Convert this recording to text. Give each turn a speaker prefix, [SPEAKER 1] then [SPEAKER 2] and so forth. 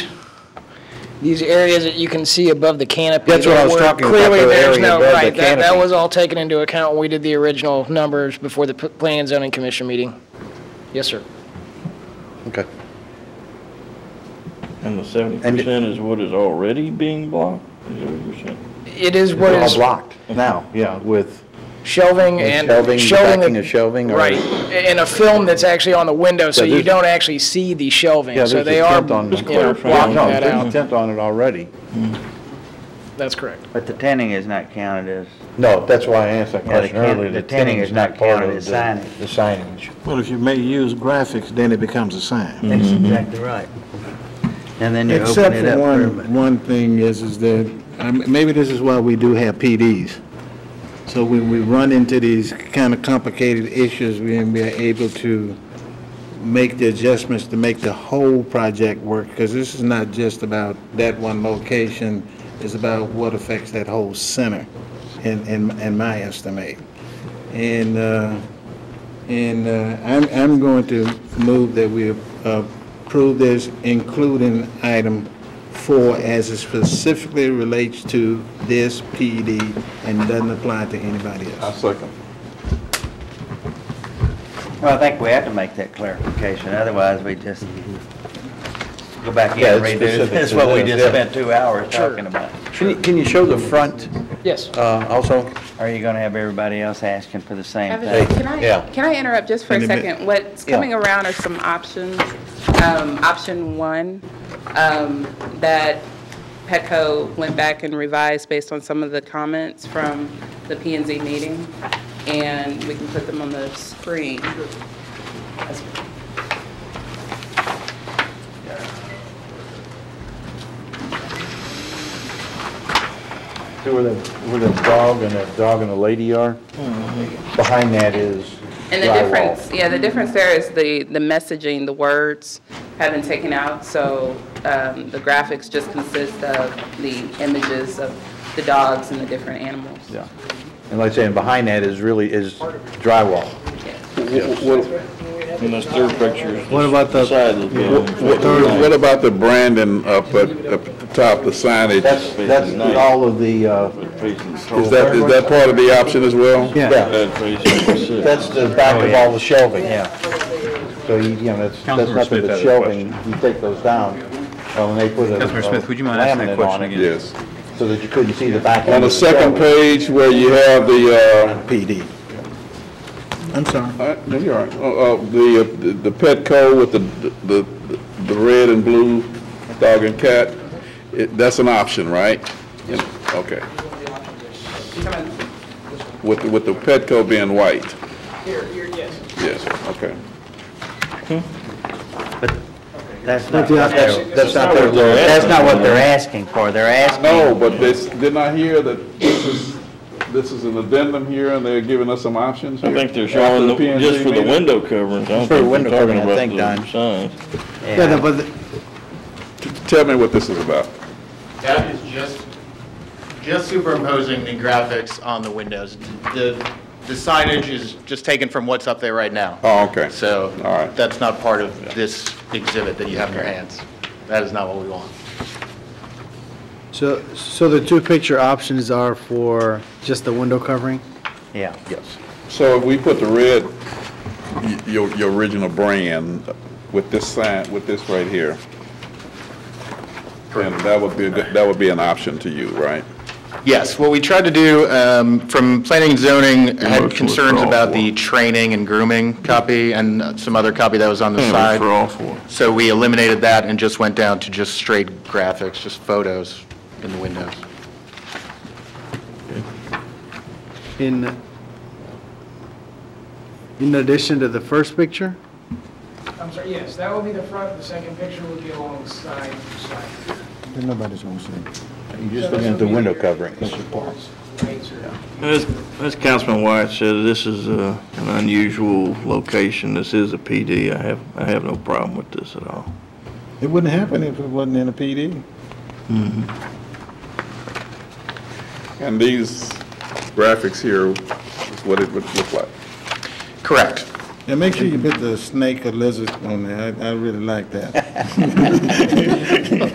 [SPEAKER 1] these areas that you can see above the canopy.
[SPEAKER 2] That's what I was
[SPEAKER 1] were
[SPEAKER 2] talking about,
[SPEAKER 1] Clearly,
[SPEAKER 2] the
[SPEAKER 1] there's
[SPEAKER 2] area
[SPEAKER 1] no,
[SPEAKER 2] above the
[SPEAKER 1] right, that, that
[SPEAKER 2] canopy.
[SPEAKER 1] was all taken into account when we did the original numbers before the P- Planning and Zoning Commission meeting. Yes, sir.
[SPEAKER 2] Okay.
[SPEAKER 3] And the seventy percent is what is already being blocked? Is that what you're saying?
[SPEAKER 1] It is what
[SPEAKER 2] It's all
[SPEAKER 1] is
[SPEAKER 2] blocked now, yeah, with
[SPEAKER 1] shelving and.
[SPEAKER 2] shelving,
[SPEAKER 1] shelving
[SPEAKER 2] backing
[SPEAKER 1] the-
[SPEAKER 2] of shelving or.
[SPEAKER 1] Right, and a film that's actually on the window, so
[SPEAKER 2] Yeah,
[SPEAKER 1] you
[SPEAKER 2] there's-
[SPEAKER 1] don't actually see the shelving,
[SPEAKER 2] Yeah,
[SPEAKER 1] so
[SPEAKER 2] there's
[SPEAKER 1] they
[SPEAKER 2] a
[SPEAKER 1] are, you
[SPEAKER 2] tent on- Just
[SPEAKER 1] know,
[SPEAKER 3] clarify.
[SPEAKER 1] blocking
[SPEAKER 2] No,
[SPEAKER 1] that
[SPEAKER 2] there's
[SPEAKER 1] out.
[SPEAKER 2] intent on it already.
[SPEAKER 1] That's correct.
[SPEAKER 4] But the tinning is not counted as,
[SPEAKER 2] No, that's why I asked that
[SPEAKER 4] Yeah, the
[SPEAKER 2] question
[SPEAKER 4] tent-
[SPEAKER 2] earlier.
[SPEAKER 4] the tinning is not
[SPEAKER 2] part
[SPEAKER 4] counted
[SPEAKER 2] of
[SPEAKER 4] as
[SPEAKER 2] the-
[SPEAKER 4] signage.
[SPEAKER 2] The signage.
[SPEAKER 5] Well, if you may use graphics, then it becomes a sign.
[SPEAKER 4] that's
[SPEAKER 2] Mm-hmm.
[SPEAKER 4] exactly right. And then you open
[SPEAKER 5] Except
[SPEAKER 4] it
[SPEAKER 5] for
[SPEAKER 4] up for
[SPEAKER 5] one,
[SPEAKER 4] everybody.
[SPEAKER 5] one thing is, is that, um, maybe this is why we do have PDs. So when we run into these kind of complicated issues, we we are able to make the adjustments to make the whole project work, because this is not just about that one location, it's about what affects that whole center, in, in, in my estimate. And, uh, and uh, I'm, I'm going to move that we uh, approve this, including item four, as it specifically relates to this PD and doesn't apply to anybody else.
[SPEAKER 2] second.
[SPEAKER 4] Well, I think we have to make that clarification, otherwise we just go back in
[SPEAKER 2] Yeah,
[SPEAKER 4] and
[SPEAKER 2] it's
[SPEAKER 4] redo
[SPEAKER 2] specific
[SPEAKER 4] this. That's
[SPEAKER 2] to
[SPEAKER 4] what we
[SPEAKER 2] this,
[SPEAKER 4] just
[SPEAKER 2] yeah.
[SPEAKER 4] spent two hours
[SPEAKER 1] Sure.
[SPEAKER 4] talking about.
[SPEAKER 2] Can you, can you show the front
[SPEAKER 1] Yes.
[SPEAKER 2] uh, also?
[SPEAKER 4] Are you gonna have everybody else asking for the same
[SPEAKER 6] Evan,
[SPEAKER 4] thing?
[SPEAKER 6] Can
[SPEAKER 2] Yeah.
[SPEAKER 6] I, can I interrupt just for
[SPEAKER 5] In
[SPEAKER 6] a
[SPEAKER 5] a minute.
[SPEAKER 6] second? What's
[SPEAKER 2] Yeah.
[SPEAKER 6] coming around are some options. Um, Option one, um, that Petco went back and revised based on some of the comments from the P and Z meeting, and we can put them on the screen.
[SPEAKER 2] See where the, where the dog and the dog and the lady are? Behind that is
[SPEAKER 6] And the
[SPEAKER 2] drywall.
[SPEAKER 6] difference, yeah, the difference there is the, the messaging, the words have been taken out, so um, the graphics just consist of the images of the dogs and the different animals.
[SPEAKER 2] Yeah. And like I say, and behind that is really, is drywall.
[SPEAKER 3] And that's third picture is
[SPEAKER 5] What about
[SPEAKER 3] the
[SPEAKER 5] the
[SPEAKER 3] side of the building.
[SPEAKER 7] What what about the branding up at, up at the top, the signage?
[SPEAKER 2] That's, that's all of the, uh,
[SPEAKER 3] Facing
[SPEAKER 7] Is
[SPEAKER 3] south,
[SPEAKER 7] that, is that part of the option as well?
[SPEAKER 2] yeah,
[SPEAKER 3] that facing south.
[SPEAKER 2] that's the
[SPEAKER 8] Oh,
[SPEAKER 2] back of all the shelving.
[SPEAKER 4] Yeah,
[SPEAKER 2] So you, you know, that's, that's
[SPEAKER 8] Councilman
[SPEAKER 2] nothing
[SPEAKER 8] Smith
[SPEAKER 2] but
[SPEAKER 8] has a
[SPEAKER 2] shelving, you take those down, uh, when they put a
[SPEAKER 8] Councilman
[SPEAKER 2] a
[SPEAKER 8] Smith, would you mind asking that
[SPEAKER 2] laminate on
[SPEAKER 8] question
[SPEAKER 2] it
[SPEAKER 8] again?
[SPEAKER 7] Yes.
[SPEAKER 2] So that you couldn't see the back
[SPEAKER 7] On
[SPEAKER 2] end
[SPEAKER 7] the
[SPEAKER 2] of shelving.
[SPEAKER 7] second page where you have the,
[SPEAKER 5] PD? I'm sorry.
[SPEAKER 7] uh, uh, no, you're all right. Uh, uh, the, uh, the- the Petco with the, the, the red and blue dog and cat, it- that's an option, right? Yeah, Okay. With, the- with the Petco being white? yes. Yes, okay.
[SPEAKER 4] that's not,
[SPEAKER 2] That's, that's not their,
[SPEAKER 4] that's not what they're asking for, they're asking.
[SPEAKER 7] No, but this, didn't I hear that this is, this is an addendum here, and they're giving us some options
[SPEAKER 3] I
[SPEAKER 7] here?
[SPEAKER 3] think they're
[SPEAKER 7] After
[SPEAKER 3] showing, the-
[SPEAKER 7] P&Z
[SPEAKER 3] just for the
[SPEAKER 7] meeting?
[SPEAKER 3] window coverings, I don't
[SPEAKER 2] For the
[SPEAKER 3] think
[SPEAKER 2] window
[SPEAKER 3] they're talking
[SPEAKER 2] covering, I
[SPEAKER 3] about
[SPEAKER 2] think,
[SPEAKER 3] the
[SPEAKER 2] Don.
[SPEAKER 3] signs.
[SPEAKER 5] Yeah, no, but the-
[SPEAKER 7] Tell me what this is about.
[SPEAKER 9] That is just, just superimposing the graphics on the windows. The the signage is just taken from what's up there right now.
[SPEAKER 7] Oh, okay.
[SPEAKER 9] So
[SPEAKER 7] All right.
[SPEAKER 9] that's not part of this exhibit that you have in your hands. That is not what we want.
[SPEAKER 10] So, so the two picture options are for just the window covering?
[SPEAKER 4] Yeah.
[SPEAKER 7] So if we put the red, y- your, your original brand with this sign, with this right here, and that would be, that would be an option to you, right?
[SPEAKER 9] Yes, what we tried to do, um, from planning and zoning,
[SPEAKER 7] Motion
[SPEAKER 9] had
[SPEAKER 7] to
[SPEAKER 9] concerns
[SPEAKER 7] withdraw
[SPEAKER 9] about
[SPEAKER 7] for.
[SPEAKER 9] the training and grooming copy and some other copy that was on the side.
[SPEAKER 7] For all four.
[SPEAKER 9] So we eliminated that and just went down to just straight graphics, just photos in the windows.
[SPEAKER 10] In, in addition to the first picture?
[SPEAKER 11] I'm sorry, yes, that will be the front, the second picture will be alongside the side.
[SPEAKER 5] Nobody's going to see.
[SPEAKER 2] you're just looking at the window covering.
[SPEAKER 11] Lights or-
[SPEAKER 3] As, as Councilman Wyatt said, this is uh, an unusual location. This is a PD. I have, I have no problem with this at all.
[SPEAKER 5] It wouldn't happen if it wasn't in a PD.
[SPEAKER 7] And these graphics here is what it would look like.
[SPEAKER 9] Correct.
[SPEAKER 5] And make sure you put the snake or lizard on there, I, I really like that.